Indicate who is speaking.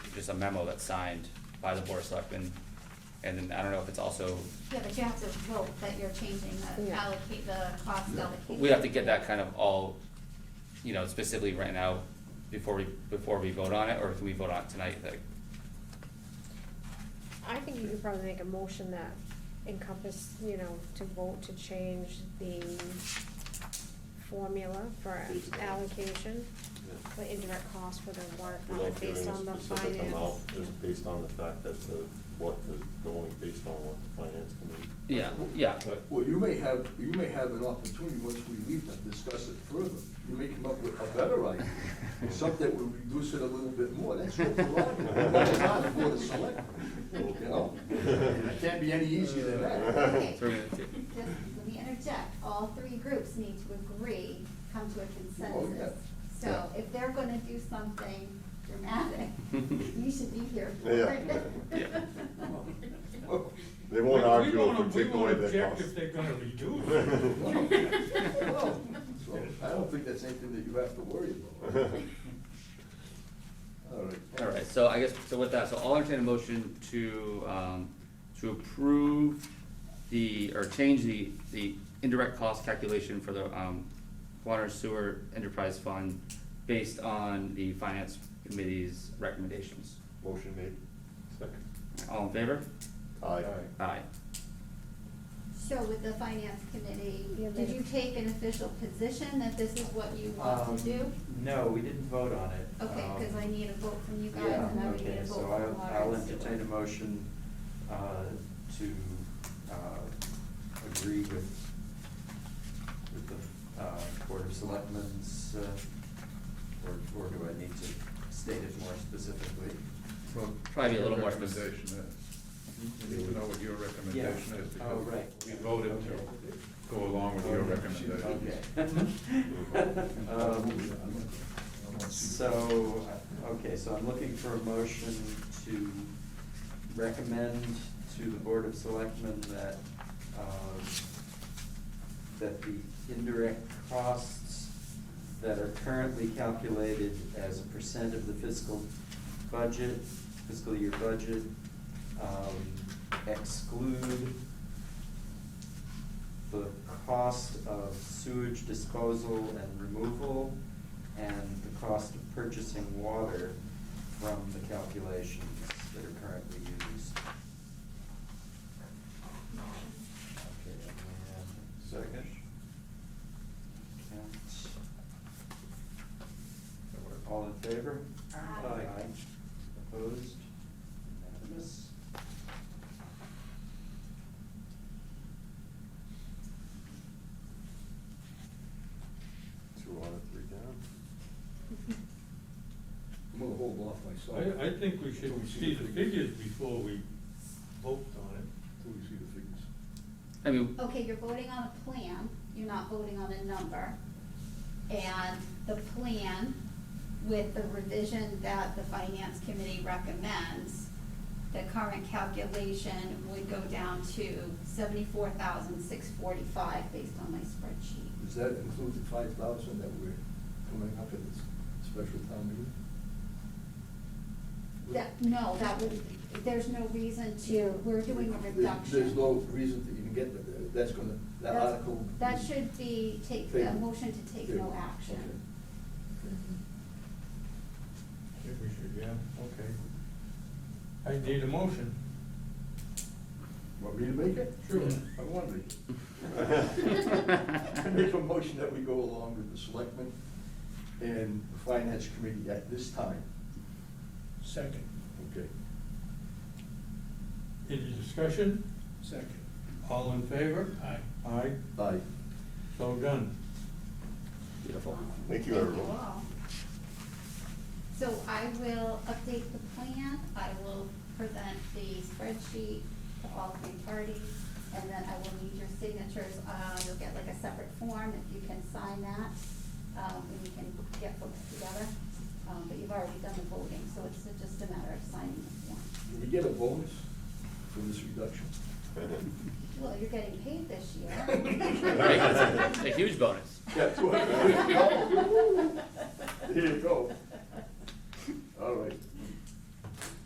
Speaker 1: just a memo that's signed by the board of selectmen. And then I don't know if it's also,
Speaker 2: Yeah, but you have to vote that you're changing the
Speaker 3: Yeah.
Speaker 2: allocate, the cost allocation.
Speaker 1: we have to get that kind of all, you know, specifically written out before we, before we vote on it, or if we vote on it tonight, like,
Speaker 3: I think you could probably make a motion that encompass, you know, to vote to change the formula for
Speaker 4: Feasible.
Speaker 3: allocation,
Speaker 4: Yeah.
Speaker 3: for indirect cost for the water
Speaker 4: Without
Speaker 3: fund
Speaker 4: giving
Speaker 3: uh, based
Speaker 4: a
Speaker 3: on the
Speaker 4: specific amount,
Speaker 3: finance.
Speaker 4: Just based on the fact that the, what is going based on what the finance committee.
Speaker 1: yeah, yeah, but-
Speaker 5: Well, you may have, you may have an opportunity, once we leave, to discuss it further. You may come up with a better idea, something that would reduce it a little bit more, that's what we're on, that's not for the select, you know? It can't be any easier than that.
Speaker 2: Okay.
Speaker 1: Three minutes, yeah.
Speaker 2: Just, let me interject, all three groups need to agree, come to a
Speaker 5: Oh, yeah.
Speaker 2: consensus. So
Speaker 1: Yeah.
Speaker 2: if they're gonna do something dramatic, you should be here for
Speaker 4: Yeah.
Speaker 2: it.
Speaker 1: Yeah.
Speaker 5: Well,
Speaker 4: They won't
Speaker 6: We-
Speaker 4: argue
Speaker 6: We
Speaker 4: a
Speaker 6: won't, we
Speaker 4: particular way
Speaker 6: won't
Speaker 4: that
Speaker 6: object
Speaker 4: costs.
Speaker 6: if they're gonna reduce.
Speaker 5: well, so I don't think that's anything that you have to worry about. All right.
Speaker 1: All right, so I guess, so with that, so I'll entertain a motion to, um, to approve the, or change the, the indirect cost calculation for the, um, water sewer enterprise fund based on the finance committee's recommendations.
Speaker 4: Motion made. Second.
Speaker 1: All in favor?
Speaker 4: Aye.
Speaker 1: Aye.
Speaker 2: So with the finance committee,
Speaker 3: Yeah,
Speaker 2: did
Speaker 3: they-
Speaker 2: you take an official position that this is what you want to
Speaker 7: Um,
Speaker 2: do?
Speaker 7: No, we didn't vote on it.
Speaker 2: Okay,
Speaker 7: Um,
Speaker 2: cause I need a vote from you guys
Speaker 7: Yeah,
Speaker 2: and I would need
Speaker 7: okay,
Speaker 2: a vote
Speaker 7: so
Speaker 2: from water.
Speaker 7: I'll, I'll
Speaker 2: and sewer.
Speaker 7: entertain a motion, uh, to, uh, agree with, with the, uh, Board of Selectmen's, uh, or, or do I need to state it more specifically?
Speaker 1: Probably a little more
Speaker 8: Recommendation
Speaker 1: specific.
Speaker 8: is, you need to know what your recommendation is,
Speaker 7: Yeah. Oh,
Speaker 8: because
Speaker 7: right.
Speaker 8: we voted to go along with your recommendation.
Speaker 7: Okay. Um, So, okay, so I'm looking for a motion to recommend to the Board of Selectmen that, um, that the indirect costs that are currently calculated as a percent of the fiscal budget, fiscal year budget, um, exclude the cost of sewage disposal and removal and the cost of purchasing water from the calculations that are currently used. Okay, and-
Speaker 4: Second.
Speaker 7: Count. All in favor?
Speaker 2: Aye.
Speaker 7: Opposed? Unanimous?
Speaker 4: Two on it, three down.
Speaker 5: I'm gonna hold off myself.
Speaker 6: I, I think we should
Speaker 5: Till
Speaker 6: see the
Speaker 5: figures.
Speaker 6: figures before we vote on it.
Speaker 8: Till we see the figures.
Speaker 1: I mean,
Speaker 2: Okay, you're voting on a plan, you're not voting on a number. And the plan with the revision that the finance committee recommends, the current calculation would go down to seventy-four thousand six forty-five based on my spreadsheet.
Speaker 5: Does that include the five thousand that we're coming up in this special town meeting?
Speaker 2: That, no, that would, there's no reason to, we're doing a
Speaker 5: There-
Speaker 2: reduction.
Speaker 5: There's no reason to even get, that. that's gonna, that
Speaker 2: That's-
Speaker 5: article.
Speaker 2: That should be, take, a
Speaker 5: Table.
Speaker 2: motion to take no
Speaker 5: Table.
Speaker 2: action.
Speaker 6: If we should, yeah, okay. I need a motion.
Speaker 5: Want me to make it?
Speaker 6: Sure.
Speaker 5: I want to. I make a motion that we go along with the selectmen and the finance committee at this time.
Speaker 8: Second,
Speaker 5: Okay.
Speaker 6: Any discussion?
Speaker 8: second.
Speaker 6: All in favor? Aye. Aye,
Speaker 5: Aye.
Speaker 6: so done.
Speaker 1: beautiful.
Speaker 4: Thank you, everyone.
Speaker 2: all. So I will update the plan, I will present the spreadsheet to all three parties, and then I will need your signatures, uh, you'll get like a separate form, if you can sign that, um, and you can get folks together. Um, but you've already done the voting, so it's just a matter of signing the form.
Speaker 5: Do we get a bonus for this reduction?
Speaker 2: Well, you're getting paid this year.
Speaker 1: Right, A huge bonus.
Speaker 5: Yeah, two hundred. Here you go. All right.